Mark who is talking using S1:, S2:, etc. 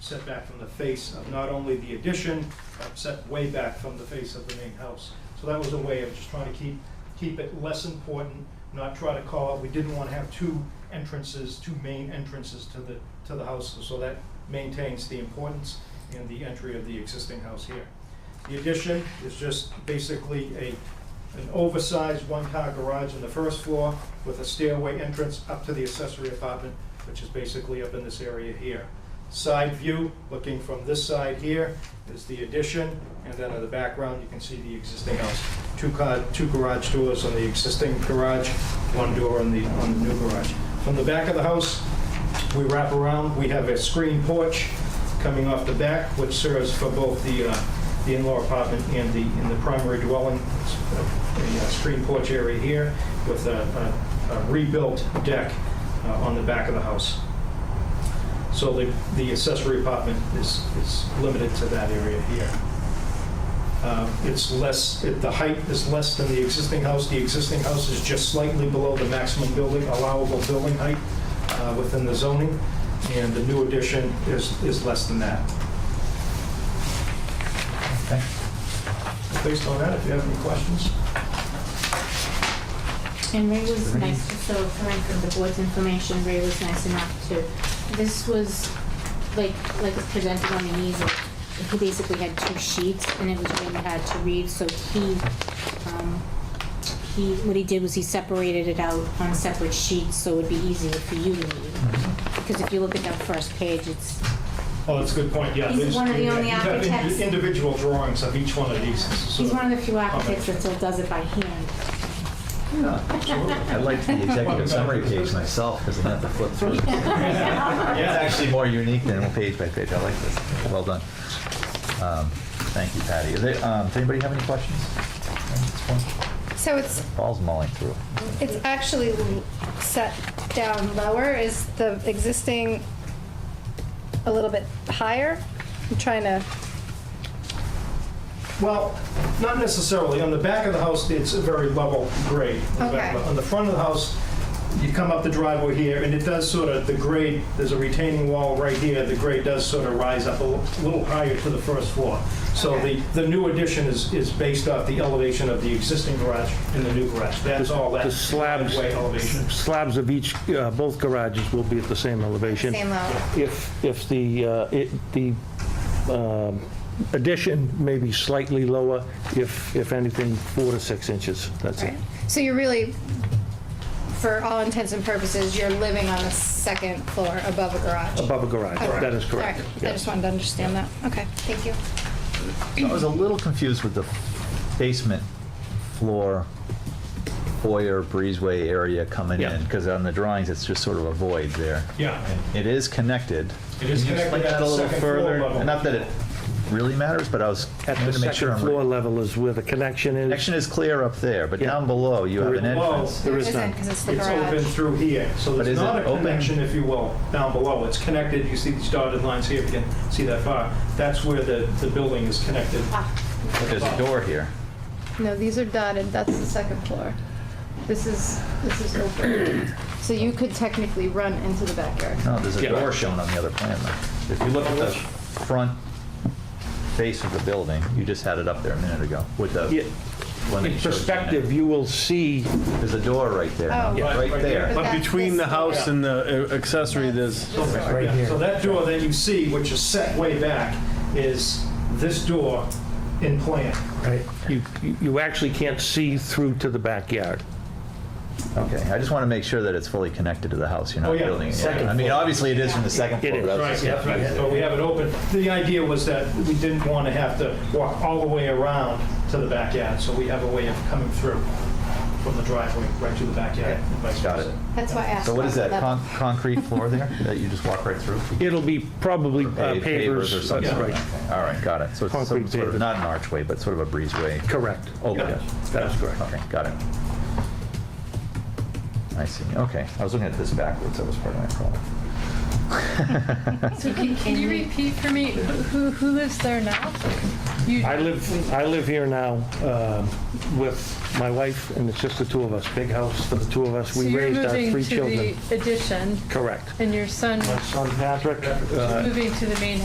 S1: setback from the face of not only the addition, but set way back from the face of the main house. So that was a way of just trying to keep, keep it less important, not try to call, we didn't want to have two entrances, two main entrances to the, to the house. So that maintains the importance and the entry of the existing house here. The addition is just basically a, an oversized one-car garage on the first floor with a stairway entrance up to the accessory apartment, which is basically up in this area here. Side view, looking from this side here, is the addition, and then in the background, you can see the existing house. Two car, two garage doors on the existing garage, one door on the, on the new garage. From the back of the house, we wrap around, we have a screen porch coming off the back, which serves for both the, uh, the in-law apartment and the, and the primary dwelling. It's a- A uh, screen porch area here with a, a- a rebuilt deck uh, on the back of the house. So the, the accessory apartment is, is limited to that area here. Um, It's less, it- the height is less than the existing house. The existing house is just slightly below the maximum building, allowable building height uh, within the zoning, and the new addition is, is less than that.
S2: Okay.
S1: Based on that, if you have any questions?
S3: And Ray was
S2: Ray.
S3: nice, so coming from the board's information, Ray was nice enough to, this was, like, like it's presented on the easel. He basically had two sheets and it was really hard to read, so he, um, he, what he did was he separated it out on separate sheets, so it'd be easier for you to read. Because if you look at that first page, it's,
S1: Oh, that's a good point, yeah.
S3: He's
S1: there's-
S3: one of the only
S1: you have indi-
S3: architects.
S1: Individual drawings of each one of these. so-
S3: he's one of the few architects that still does it by hand.
S2: I liked the executive summary page myself because I had to flip through. It's actually more unique than page by page. I like this. Well done. Um, Thank you, Patty. Is there- um, Does anybody have any questions? on this one?
S4: So it's
S2: Paul's mulling through.
S4: it's actually l- set down lower. Is the existing a little bit higher? I'm trying to.
S1: Well, not necessarily. On the back of the house, it's a very level grade. On the back of the-
S4: Okay.
S1: On the front of the house, you come up the driveway here, and it does sort of, the grade, there's a retaining wall right here, the grade does sort of rise up a li- little higher to the first floor. So the,
S4: Okay.
S1: the new addition is, is based off the elevation of the existing garage and the new garage. That's all that
S5: The slabs,
S1: driveway elevation.
S5: slabs of each, uh, both garages will be at the same elevation.
S4: Same level.
S5: If, if the, uh, it- the um, addition may be slightly lower, if, if anything, four to six inches, that's it.
S4: Right. So you're really, for all intents and purposes, you're living on the second floor above a garage.
S5: Above a garage,
S4: Okay.
S5: that is
S4: All right.
S5: correct.
S4: I just wanted to understand that. Okay, thank you.
S2: So I was a little confused with the basement floor foyer breezeway area coming
S5: Yeah.
S2: in because on the drawings, it's just sort of a void there.
S1: Yeah.
S2: It is connected.
S1: It is
S2: Can you explain
S1: connected at
S2: that
S1: the
S2: a little
S1: second floor
S2: further?
S1: level.
S2: And Not that it really matters, but I was
S5: At
S2: trying
S5: the
S2: to make sure
S5: second
S2: I'm
S5: floor
S2: right.
S5: level is where the connection is.
S2: Connection is clear up there, but
S5: Yeah.
S2: down below, you have an
S5: Below.
S2: entrance.
S5: There is none.
S4: Because it's the
S1: It's open
S4: garage.
S1: through here, so
S2: But
S1: there's
S2: is
S1: not a
S2: it open?
S1: connection, if you will, down below. It's connected, you see these dotted lines here, if you can see that far. That's where the, the building is connected.
S2: But There's a door here.
S4: No, these are dotted. That's the second floor. This is, this is open. So you could technically run into the backyard.
S2: No, there's a
S5: Yeah.
S2: door shown on the other plan. though. If you look at the front face of the building, you just had it up there a minute ago with the.
S5: Yeah.
S2: one that you
S5: In
S2: showed us.
S5: perspective, you will see,
S2: There's a door right there,
S4: Oh. Yeah.
S2: right there.
S4: But
S6: But
S4: that's
S6: between the
S4: this
S6: house
S1: door.
S6: and the uh, accessory, there's,
S1: Right here. So that door that you see, which is set way back, is this door in plan.
S5: you, you- you actually can't see through to the backyard.
S2: Okay, I just want to make sure that it's fully connected to the house, you're
S1: Oh,
S2: not
S1: yeah.
S2: building it.
S1: Second
S2: I mean, obviously it is from the second
S5: It
S2: floor.
S5: is.
S2: but I was just-
S1: That's right. So we have it open. The idea was that we didn't want to have to walk all the way around to the backyard, so we have a way of coming through from the driveway right to the backyard and vice
S2: Got it.
S1: versa.
S4: That's why I asked.
S2: So what is
S4: about
S2: that, con- concrete floor there that you just walk right through?
S5: It'll be probably uh,
S2: Paved
S5: pavers.
S2: or something?
S5: that's right.
S2: Okay, All right, got it. So it's some
S5: Concrete
S2: sort of,
S5: pavers.
S2: not an archway, but sort of a breezeway.
S5: Correct.
S2: Oh,
S1: Yeah.
S2: that is correct. Okay, got it. I see, okay. I was looking at this backwards, that was part of my problem.
S7: So can, can you repeat for me, who, who lives there now? You,
S5: I live, I live here now um, with my wife, and it's just the two of us, big house for the two of us.
S7: so
S5: We
S7: you're
S5: raised our
S7: moving
S5: three
S7: to
S5: children.
S7: the addition
S5: Correct.
S7: and your son
S5: My son Patrick, uh,
S7: moving to the main